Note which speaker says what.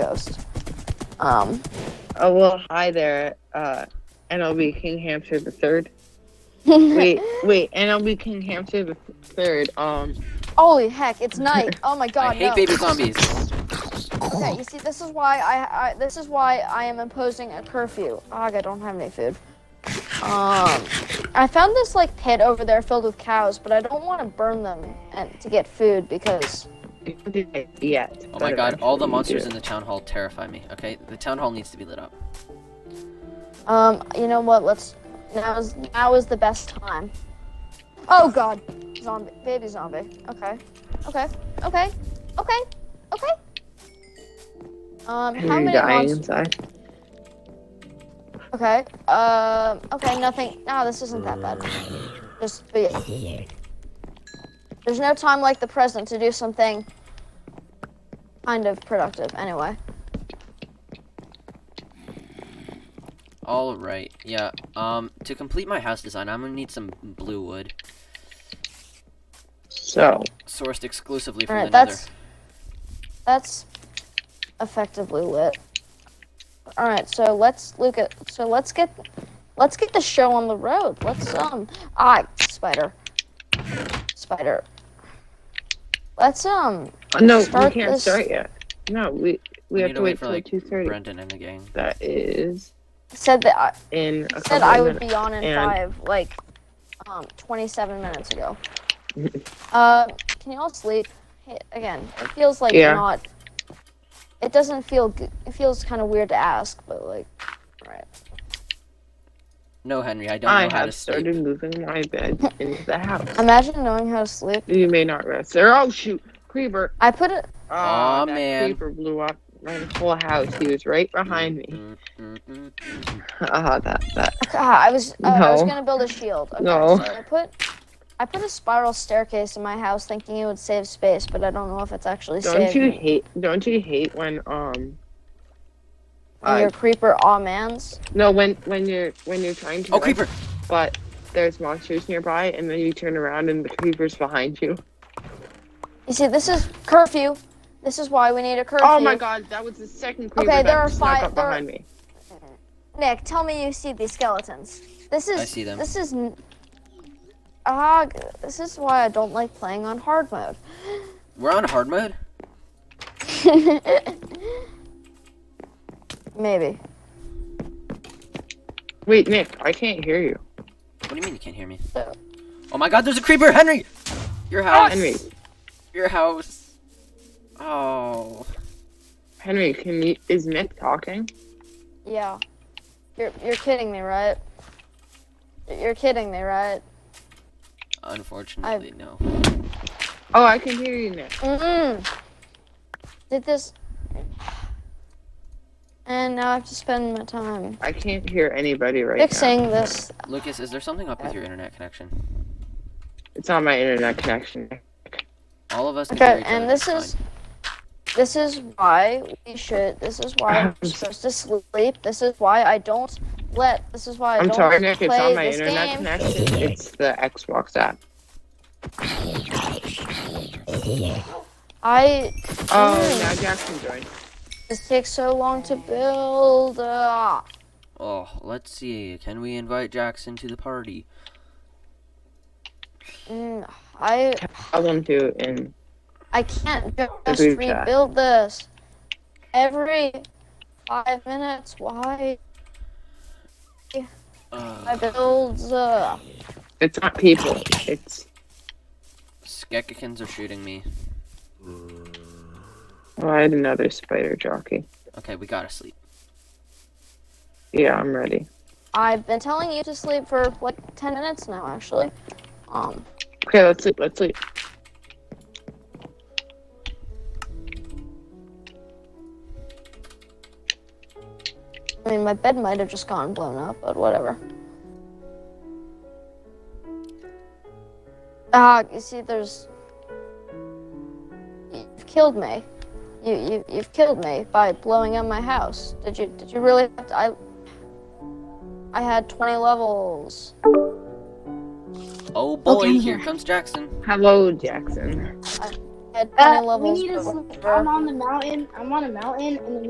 Speaker 1: ghost. Um,
Speaker 2: Oh well, hi there. Uh, NLB King Hamster the third. Wait, wait, NLB King Hamster the third. Um,
Speaker 1: holy heck, it's night. Oh my god,
Speaker 3: I hate
Speaker 1: no.
Speaker 3: baby zombies. Oh
Speaker 1: Okay, you see, this is why I, I this is why I am imposing a curfew. Ugh, I don't have any food. Um, I found this like pit over there filled with cows, but I don't want to burn them and to get food because
Speaker 2: yet.
Speaker 3: Oh my god, all the monsters in the town hall terrify me. Okay, the town hall needs to be lit up.
Speaker 1: um, you know what? Let's now is now is the best time. Oh god, zombie, baby zombie. Okay, okay, okay, okay, okay. Um, how
Speaker 2: Are you
Speaker 1: many
Speaker 2: dying
Speaker 1: monsters?
Speaker 2: inside?
Speaker 1: Okay. Um. Okay. Nothing. No, this isn't that bad. Just be. There's no time like the present to do something kind of productive. Anyway.
Speaker 3: All right, yeah. Um, to complete my house design, I'm gonna need some blue wood,
Speaker 2: So,
Speaker 3: sourced exclusively
Speaker 1: All
Speaker 3: from
Speaker 1: right.
Speaker 3: the Nether.
Speaker 1: That's. That's effectively lit. All right. So let's look at. So let's get. Let's get the show on the road. Let's um. Ah, spider. Spider. Let's um.
Speaker 2: Uh, no,
Speaker 1: Start
Speaker 2: we can't
Speaker 1: this-
Speaker 2: start yet. No, we we,
Speaker 3: We
Speaker 2: have
Speaker 3: need
Speaker 2: to
Speaker 3: to wait
Speaker 2: wait
Speaker 3: for,
Speaker 2: till
Speaker 3: like,
Speaker 2: two thirty.
Speaker 3: Brendan and the gang.
Speaker 2: That is
Speaker 1: Said that. I,
Speaker 2: in a couple
Speaker 1: said I
Speaker 2: of
Speaker 1: would
Speaker 2: minutes.
Speaker 1: be on in
Speaker 2: and-
Speaker 1: five, like, um, 27 minutes ago. uh, can you all sleep? Hey, again, it feels like
Speaker 2: Yeah.
Speaker 1: not. It doesn't feel. Good. It feels kind of weird to ask, but like, right.
Speaker 3: No, Henry, I don't
Speaker 2: I
Speaker 3: know how to
Speaker 2: have started
Speaker 3: sleep.
Speaker 2: moving my bed into the house.
Speaker 1: Imagine knowing how to sleep.
Speaker 2: You may not rest there. Oh shoot, creeper!
Speaker 1: I put it.
Speaker 2: Oh,
Speaker 3: Aw,
Speaker 2: that
Speaker 3: man.
Speaker 2: creeper blew up my whole house. He was right behind me.
Speaker 3: Mm, mm, mm, mm.
Speaker 2: Ah, that that.
Speaker 1: Ah, I was. oh, I was
Speaker 2: No.
Speaker 1: gonna build a shield. Okay,
Speaker 2: No.
Speaker 1: so I put. I put a spiral staircase in my house, thinking it would save space, but I don't know if it's actually
Speaker 2: Don't
Speaker 1: saving.
Speaker 2: you
Speaker 1: me.
Speaker 2: hate? Don't you hate when um?
Speaker 1: And
Speaker 2: Uh,
Speaker 1: your creeper, aw man's.
Speaker 2: no, when when you're when you're trying to.
Speaker 3: Oh,
Speaker 2: rest,
Speaker 3: creeper!
Speaker 2: But there's monsters nearby, and then you turn around and the creeper's behind you.
Speaker 1: You see, this is curfew. This is why we need a curfew.
Speaker 2: Oh my god, that was the second creeper
Speaker 1: Okay,
Speaker 2: that
Speaker 1: there are
Speaker 2: snuck
Speaker 1: five-
Speaker 2: up
Speaker 1: there are-
Speaker 2: behind me.
Speaker 1: Nick, tell me you see these skeletons. This is.
Speaker 3: I see them.
Speaker 1: This is. n- Ah, g- this is why I don't like playing on hard mode.
Speaker 3: We're on hard mode?
Speaker 1: Maybe.
Speaker 2: Wait, Nick, I can't hear you.
Speaker 3: What do you mean you can't hear me?
Speaker 1: So-
Speaker 3: Oh my god, there's a creeper! Henry! Your house!
Speaker 2: Henry,
Speaker 3: Your house! Oh.
Speaker 2: Henry, can you? Is Nick talking?
Speaker 1: Yeah. You're you're kidding me, right? You're kidding me, right?
Speaker 3: Unfortunately, no.
Speaker 2: Oh, I can hear you, Nick.
Speaker 1: Mm. Did this. And now I have to spend my time
Speaker 2: I can't hear anybody right now.
Speaker 1: fixing this.
Speaker 3: Lucas, is there something up with your internet connection?
Speaker 2: It's on my internet connection.
Speaker 3: All of us can hear
Speaker 1: Okay,
Speaker 3: each other,
Speaker 1: and this
Speaker 3: it's
Speaker 1: is this is why we should. This is why I'm supposed to sleep. This is why I don't let. This is why I
Speaker 2: I'm
Speaker 1: don't
Speaker 2: sorry, Nick.
Speaker 1: play
Speaker 2: It's on my
Speaker 1: this
Speaker 2: internet
Speaker 1: game.
Speaker 2: connection. It's the Xbox app.
Speaker 1: I
Speaker 2: Oh, now Jackson joined.
Speaker 1: this takes so long to build. Uh,
Speaker 3: fine. Oh, let's see. Can we invite Jackson to the party?
Speaker 1: mm, I
Speaker 2: Tell them to and
Speaker 1: I can't just
Speaker 2: group chat.
Speaker 1: rebuild this every five minutes. Why I
Speaker 3: Uh,
Speaker 1: build? Uh,
Speaker 2: it's not people. It's
Speaker 3: Skekikins are shooting me.
Speaker 2: oh, I had another spider jockey.
Speaker 3: Okay, we gotta sleep.
Speaker 2: Yeah, I'm ready.
Speaker 1: I've been telling you to sleep for like ten minutes now, actually. Um.
Speaker 2: Okay, let's sleep. Let's sleep.
Speaker 1: I mean, my bed might have just gotten blown up, but whatever. Ah, you see, there's. You've killed me. You, you, you've killed me by blowing up my house. Did you, did you really? Have to, I, I had 20 levels.
Speaker 3: Oh boy,
Speaker 4: I'm
Speaker 3: here
Speaker 4: here.
Speaker 3: comes Jackson.
Speaker 2: Hello, Jackson.
Speaker 1: I had 20
Speaker 4: Uh, we
Speaker 1: levels.
Speaker 4: need to
Speaker 1: but
Speaker 4: sleep.
Speaker 1: whatever.
Speaker 4: I'm on the mountain. I'm on a mountain, and the